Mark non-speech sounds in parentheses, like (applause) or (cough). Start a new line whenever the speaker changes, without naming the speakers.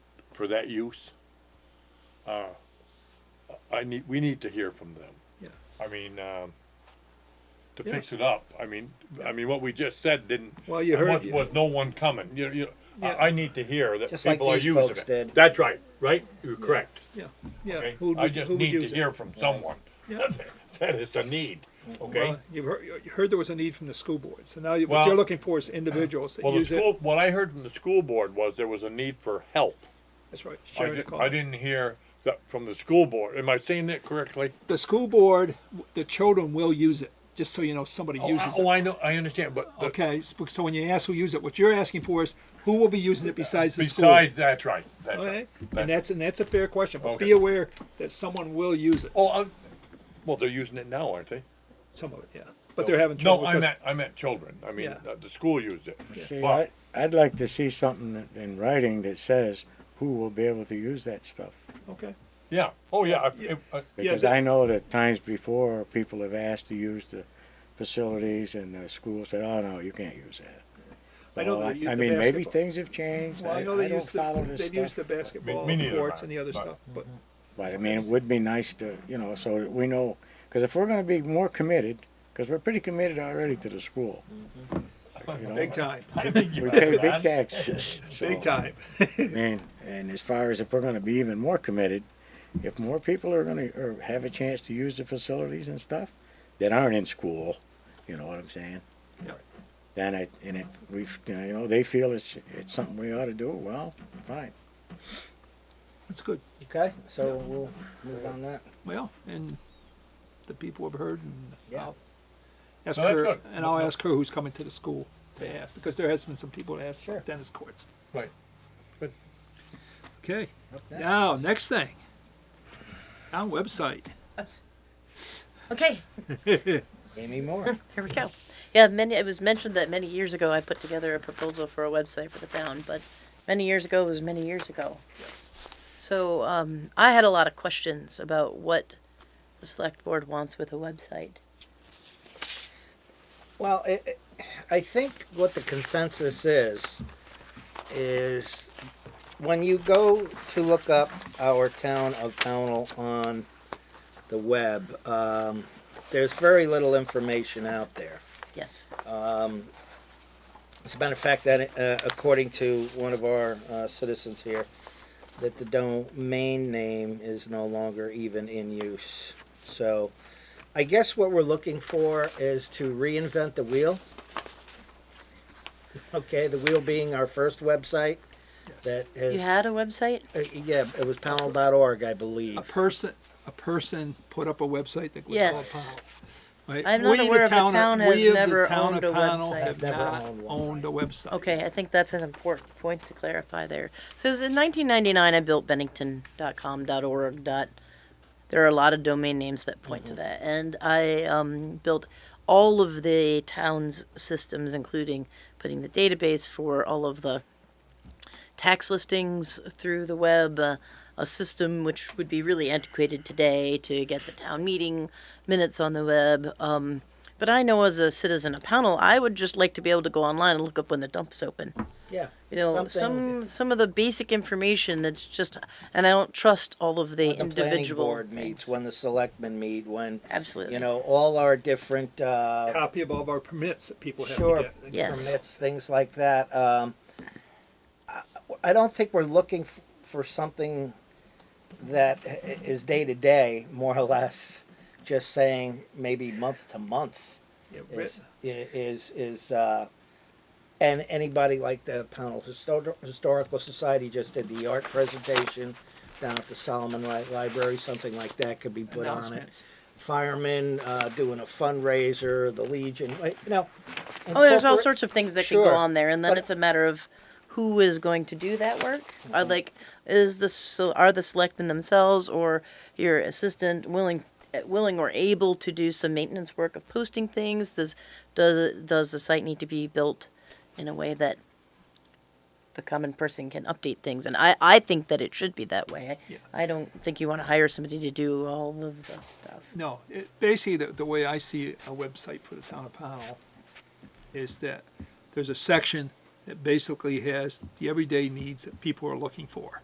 for that use, uh, I need, we need to hear from them.
Yeah.
I mean, um, to fix it up, I mean, I mean, what we just said didn't.
Well, you heard-
Was, was no one coming, you, you,
Yeah.
I, I need to hear that
Just like
people are
these
using
folks
it.
did.
That's right, right? You're correct.
Yeah, yeah.
Okay,
Who would
I
we-
just
who would
need to
use it?
hear from someone.
Yeah.
(laughs) That is a need, okay?
Well, You've heard, you heard there was a need from the school board, so now you- what
Well-
you're looking for is individuals that
Well, the
use it.
school, what I heard from the school board was there was a need for help.
That's right,
I
sharing the
didn't, I
cost.
didn't hear that from the school board. Am I saying that correctly?
The school board, the children will use it, just so you know, somebody
Oh, I,
uses
oh,
it.
I know, I understand, but the-
Okay, s- so when you ask who use it, what you're asking for is who will be using it besides the school?
besides, that's right, that's
Okay,
right.
and
That-
that's, and that's a fair question, but be
Okay.
aware that someone will use it,
Oh, I'm, well, they're using it now, aren't they?
some of it, yeah. But they're having trouble
No, I
because
meant, I meant children. I mean,
Yeah.
uh, the school used it.
See,
But-
I, I'd like to see something that- in writing that says who will be able to use that stuff.
Okay,
Yeah, oh, yeah, if- if- uh,
Yeah,
Because
that-
I know that times before, people have asked to use the facilities and the school said, oh, no, you can't use that.
I know
Well,
they
I
use
I
the
mean, maybe
basketball-
things have changed.
well,
I
I
I
know they
don't
use
follow
the,
this
they've used the
stuff.
basketball
me neither,
courts
Ryan,
and the other
but-
stuff, but,
But I mean, it would be nice to, you know, so that we know, because if we're gonna be more committed, because we're pretty committed already to the school.
(laughs)
you know,
big time,
I think you
We
have
pay
that.
(laughs) big taxes. so.
big time.
Man, and as far as if we're gonna be even more committed, if more people are gonna, or have a chance to use the facilities and stuff that aren't in school, you know what I'm saying?
Yep.
Then I, and if we've, you know, they feel it's, it's something we ought to do, well, fine.
That's good.
Okay, so we'll move on that.
Well, and the people have heard, and
Yeah.
I'll ask
No, that's
her,
good.
and I'll ask her who's coming to the school to ask, because there has been some people that asked about tennis courts.
Right. Good.
Okay,
Up next.
now, next thing, town website.
Oops. Okay,
Amy Moore.
here we go. Yeah, many. It was mentioned that many years ago I put together a proposal for a website for the town, but many years ago was many years ago. So um, I had a lot of questions about what the select board wants with a website.
Well, it, it- I think what the consensus is, is when you go to look up our town of Pownell on the web, um, there's very little information out there.
Yes.
As a matter of fact, that uh, according to one of our uh, citizens here, that the domain name is no longer even in use. So, I guess what we're looking for is to reinvent the wheel. Okay, the wheel being our first website that
You
has,
had a website?
uh, yeah, it was panel.org, I believe.
A person, a person put up a website that was
Yes.
called Pownell. Right?
I'm not
We, the
aware of a
town of-
town has
we of the
never
town of
owned a
Pownell
website.
Have
Never
not
owned one.
owned a website.
Okay, I think that's an important point to clarify there. So it was in 1999, I built Bennington.com, .org. dot- There are a lot of domain names that point to that, and I um, built all of the town's systems, including putting the database for all of the tax listings through the web, uh, a system which would be really antiquated today to get the town meeting minutes on the web. Um, but I know as a citizen of Pownell, I would just like to be able to go online and look up when the dump's open.
Yeah.
You know,
something-
some some of the basic information that's just, and I don't trust all of the,
when the planning
individual.
board meets,
things.
when the selectmen meet, when,
Absolutely.
you know, all our different, uh,
Copy of all of our permits that people have
Sure.
to get.
Yes.
permits, things like that. Um, I, I don't think we're looking f- for something that i- is day to day, more or less. Just saying, maybe month to month
Yeah,
is i- is is. Uh, and anybody like the Pownell Histo- Historical Society just did the art presentation down at the Solomon Li- Library. Something like that could be put on it.
announcements.
Firemen uh, doing a fundraiser, the Legion. like, You know,
Oh, there's all
incorporate-
sorts of things that can
Sure,
go on there, and then
but-
it's a matter of who is going to do that work. Are like, is the se- are the selectmen themselves or your assistant willing, eh, willing or able to do some maintenance work of posting things? Does does does the site need to be built in a way that the common person can update things? And I I think that it should be that way.
Yeah.
I don't think you want to hire somebody to do all of the stuff.
No, it, basically, the, the way I see a website for the town of Pownell is that there's a section that basically has the everyday needs that people are looking for.